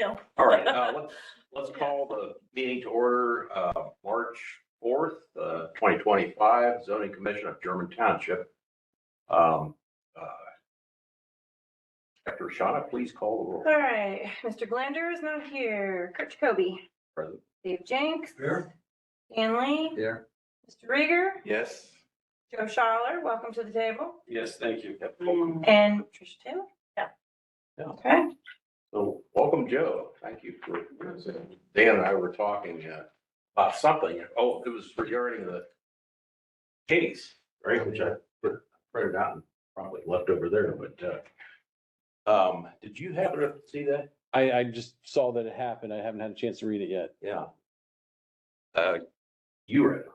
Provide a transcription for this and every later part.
Well, All right, uh, let's, let's call the meeting to order, uh, March fourth, uh, twenty twenty-five, zoning commission of German Township. Um, uh, Dr. Shawna, please call the roll. all right, Mr. Glander is not here. Kurt Jacoby, Present. Dave Jenks. Here. Dan Lee, Here. Mr. Rieger, Yes. Joe Schaller, welcome to the table, Yes, thank you. Yep, welcome. and Tricia Taylor. Yeah. Okay, So, welcome, Joe. Thank you for, Dan and I were talking, uh, about something. Oh, it was regarding the case, right, which I put- printed out and probably left over there, but, uh, um, did you happen to see that? I, I just saw that it happened. I haven't had a chance to read it yet. Yeah. Uh, you read it.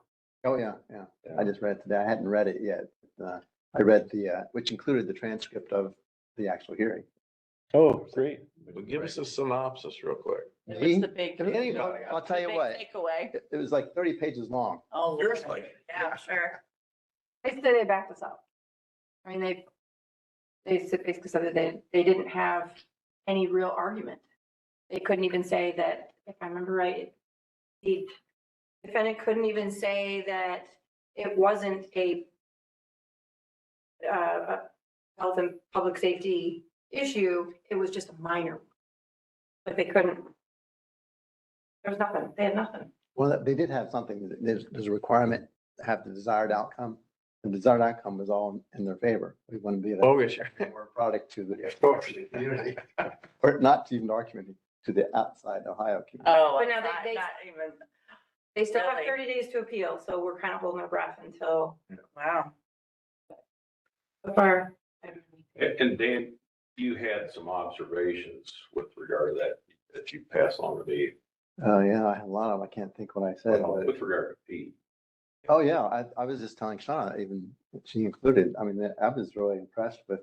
Oh, yeah, yeah. I just read it today. I hadn't read it yet. Uh, I read the, uh, which included the transcript of the actual hearing. Oh, great. Well, give us a synopsis real quick. It Me? was the big. Give anybody. I'll tell you big what, Takeaway. it it was like thirty pages long. Oh, Lord. Seriously. Yeah, sure. they said they backed us up. I mean, they, they said- basically said that they, they didn't have any real argument. They couldn't even say that, if I remember right, the defendant couldn't even say that it wasn't a uh, a health and public safety issue, it was just a minor. one. But they couldn't. There was nothing, they had nothing. Well, they did have something, there's, there's a requirement to have the desired outcome. The desired outcome was all in their favor. We want to be Oh, a yes, sure. product to the community, or not to even our community, to the outside Ohio community. Oh. But now they- not- they- not even, They still have Really? thirty days to appeal, so we're kind of holding our breath until wow. so far. And and Dan, you had some observations with regard to that, that you passed on to me, uh, Oh, yeah, I have a lot of, them. I can't think what I said. but- with regard to Pete. Oh, yeah, I, I was just telling Shauna, even she included, I mean, that- I was really impressed with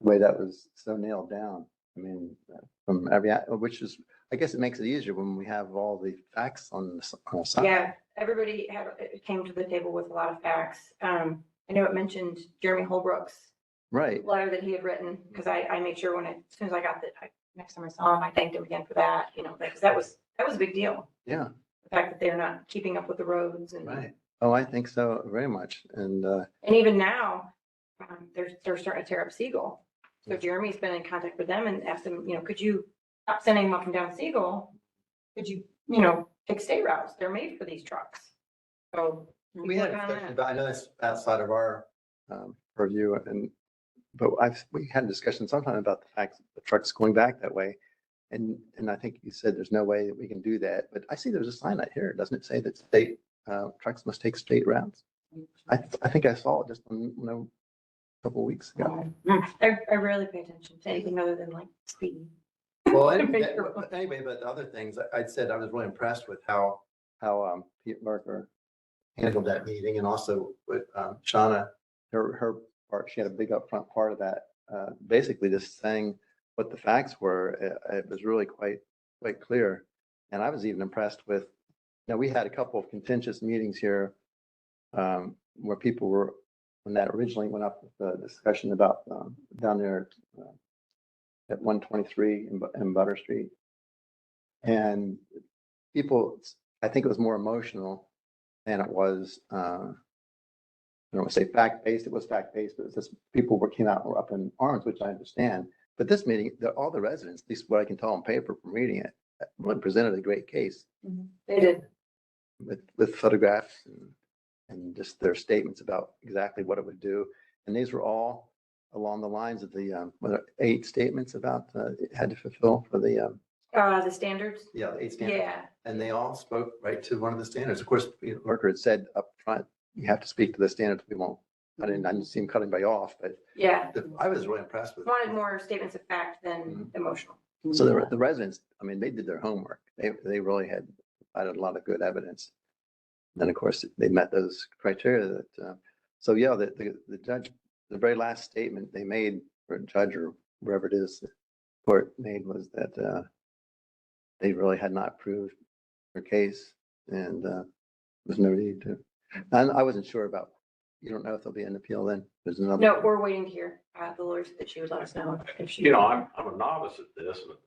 the way that was so nailed down. I mean, uh, from every, a- which is, I guess it makes it easier when we have all the facts on the, s- on the side. Yeah, everybody had, came to the table with a lot of facts. Um, I know it mentioned Jeremy Holbrook's Right, letter that he had written, because I, I made sure when I, as soon as I got the, I- next time I saw him, I thanked him again for that, you know, because that was, that was a big deal. yeah, The fact that they're not keeping up with the roads and, right. Oh, I think so very much. And, uh, and even now, um, they're, they're starting to tear up Siegel. So Jeremy's been in contact with them and asked them, you know, could you stop sending them up and down Siegel? Could you, you know, fix state routes? They're made for these trucks. So. we had a work on discussion, that. about I know that's outside of our, um, purview and, but I've, we had a discussion sometime about the fact that the truck's going back that way. And, and I think you said there's no way that we can do that, but I see there's a sign out here, doesn't it say that state, uh, trucks must take state routes? I, I think I saw it just, on, you know, a couple of weeks ago. I, I rarely pay attention to anything other than like speed. Well, I anyway, figured. but- anyway, but the other things, I- I'd said I was really impressed with how, how um, Pete Merker handled that meeting and also with um, Shauna, her, her part, she had a big upfront part of that, uh, basically just saying what the facts were. uh, It, it was really quite, quite clear. And I was even impressed with, now, we had a couple of contentious meetings here um, where people were, when that originally went up, the discussion about um, down there uh, at one twenty-three in Bu- in Butter Street. And people, I think it was more emotional than it was, uh, I don't want to say fact-based, it was fact-based, but it was just people were, came out and were up in arms, which I understand. But this meeting, the, all the residents, at least what I can tell on paper from reading it, uh, really presented a great case They did. with, with photographs and, and just their statements about exactly what it would do. And these were all along the lines of the, um, what, are- eight statements about, uh, it had to fulfill for the, um. Uh, the standards? Yeah, the eight Yeah, And they all spoke right to one of the standards. Of course, you know, Merker had said up front, you have to speak to the standards. We won't, I didn't, I didn't see him cutting anybody off, but yeah. the- I was really impressed with. Wanted more statements of fact than emotional. So the, the residents, I mean, they did their homework. They, they really had, provided a lot of good evidence. And of course, they met those criteria that, uh, so yeah, the, the, the judge, the very last statement they made, or judge or wherever it is, the court made was that, uh, they really had not proved their case and, uh, there's no need to. And I wasn't sure about, you don't know if there'll be an appeal then. There's another. No, we're waiting to hear, uh, the lawyers that she would let us know if she. You know, I'm, I'm a novice at this, but